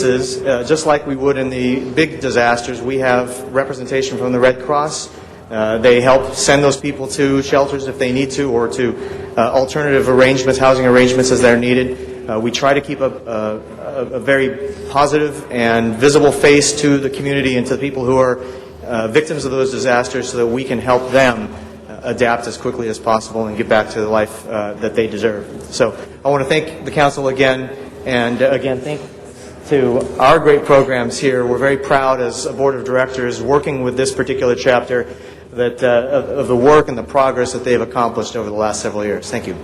cases, uh, just like we would in the big disasters, we have representation from the Red Cross. Uh, They help send those people to shelters if they need to, or to uh, alternative arrangements, housing arrangements as they're needed. Uh, We try to keep a- a a- a very positive and visible face to the community and to the people who are uh, victims of those disasters so that we can help them uh, adapt as quickly as possible and get back to the life uh, that they deserve. So I want to thank the council again, and uh, again, thank to our great programs here. We're very proud as a board of directors working with this particular chapter that, uh, of of the work and the progress that they've accomplished over the last several years. Thank you.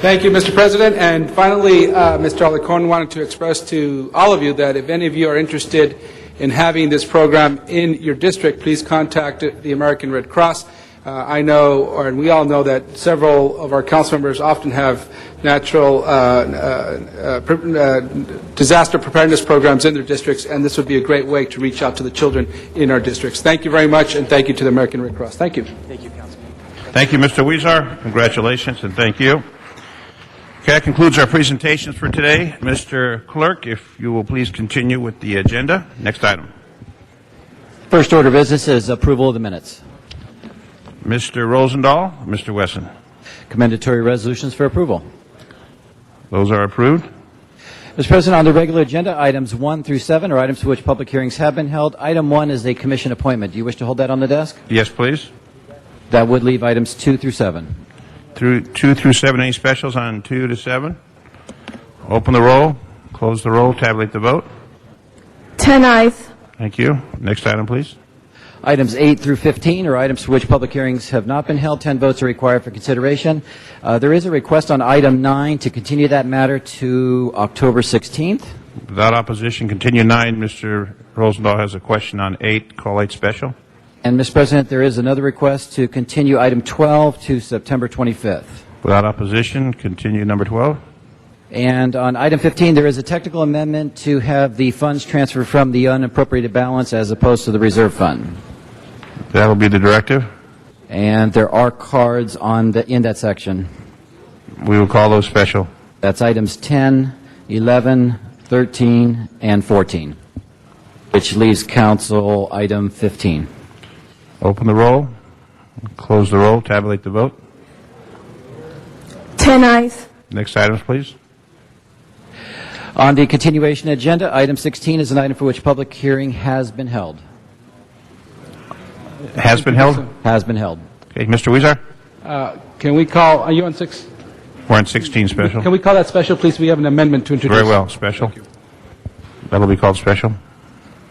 Thank you, Mr. President. And finally, uh, Mr. Alarcon wanted to express to all of you that if any of you are interested in having this program in your district, please contact the American Red Cross. Uh, I know, or and we all know, that several of our council members often have natural uh, uh, pre- uh, disaster preparedness programs in their districts, and this would be a great way to reach out to the children in our districts. Thank you very much, and thank you to the American Red Cross. Thank you. Thank you, Mr. Weezer. Congratulations, and thank you. Okay, that concludes our presentations for today. Mr. Clerk, if you will please continue with the agenda. Next item. First order of business is approval of the minutes. Mr. Rosendahl, Mr. Wesson. Commendatory resolutions for approval. Those are approved. Mr. President, on the regular agenda, items 1 through 7 are items for which public hearings have been held. Item 1 is a commission appointment. Do you wish to hold that on the desk? Yes, please. That would leave items 2 through 7. Through two through seven, any specials on two to seven? Open the roll, close the roll, tabulate the vote. Ten eyes. Thank you. Next item, please. Items 8 through 15 are items for which public hearings have not been held. 10 votes are required for consideration. Uh, There is a request on item 9 to continue that matter to October 16th. Without opposition, continue nine. Mr. Rosendahl has a question on eight, call eight special. And, Mr. President, there is another request to continue item 12 to September 25th. Without opposition, continue number 12. And on item 15, there is a technical amendment to have the funds transferred from the unappropriated balance as opposed to the reserve fund. That will be the directive. And there are cards on the, in that section. We will call those special. That's items 10, 11, 13, and 14, which leaves council item 15. Open the roll, close the roll, tabulate the vote. Ten eyes. Next items, please. On the continuation agenda, item 16 is an item for which public hearing has been held. Has been held. Has been held. Okay, Mr. Weezer, Uh, Can we call, are you on six? we're on 16 Can special. we call that special, please? We have an amendment to introduce. Very well, special. That'll be called special.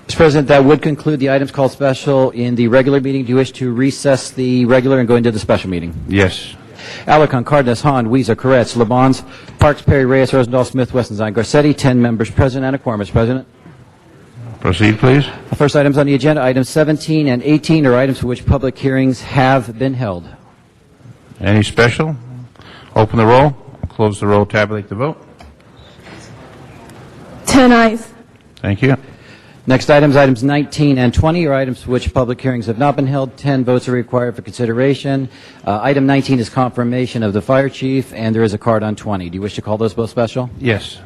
Mr. President, that would conclude the items called special in the regular meeting. Do you wish to recess the regular and go into the special meeting? Yes. Alarcon, Cardenas, Hahn, Weezer, Corretz, Lebons, Parks, Perry, Reyes, Rosendahl, Smith, Westenstein, Garcetti, 10 members present and a quorum, Mr. President. Proceed, please. The first items on the agenda, items 17 and 18, are items for which public hearings have been held. Any special? Open the roll, close the roll, tabulate the vote. Ten eyes. Thank you. Next items, items 19 and 20, are items for which public hearings have not been held. 10 votes are required for consideration. Uh, Item 19 is confirmation of the fire chief, and there is a card on 20. Do you wish to call those both special? Yes.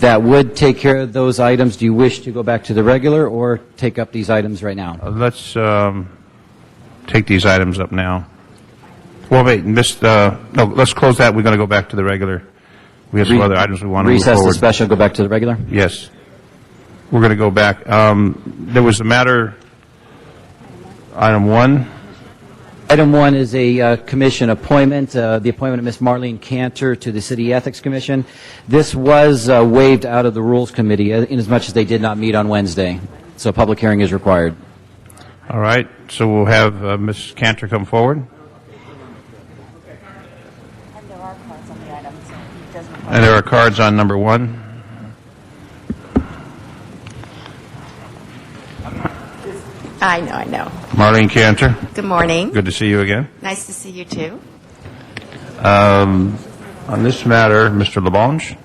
That would take care of those items. Do you wish to go back to the regular or take up these items right now? Uh, Let's um, take these items up now. Well, wait, miss, uh, no, let's close that. We're going to go back to the regular. We have some other items we want to move Recess the forward. special, go back to the regular? Yes. We're going to go back. Um, There was a matter, item one, Item one is a uh, commission appointment, uh, the appointment of Ms. Marlene Cantor to the City Ethics Commission. This was uh, waived out of the Rules Committee uh, inasmuch as they did not meet on Wednesday, so a public hearing is required. all right, so we'll have uh, Ms. Cantor come forward. And there are cards on the item, so it doesn't apply. And there are cards on number one. I know, I know. Marlene Cantor, Good morning. good to see you again. Nice to see you too. Um, On this matter, Mr. Labange?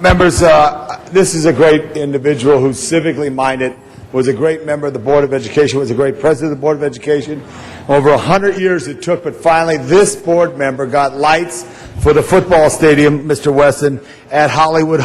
Members, uh, this is a great individual who's civically minded, was a great member of the Board of Education, was a great president of the Board of Education. Over 100 years it took, but finally this board member got lights for the football stadium, Mr. Wesson, at Hollywood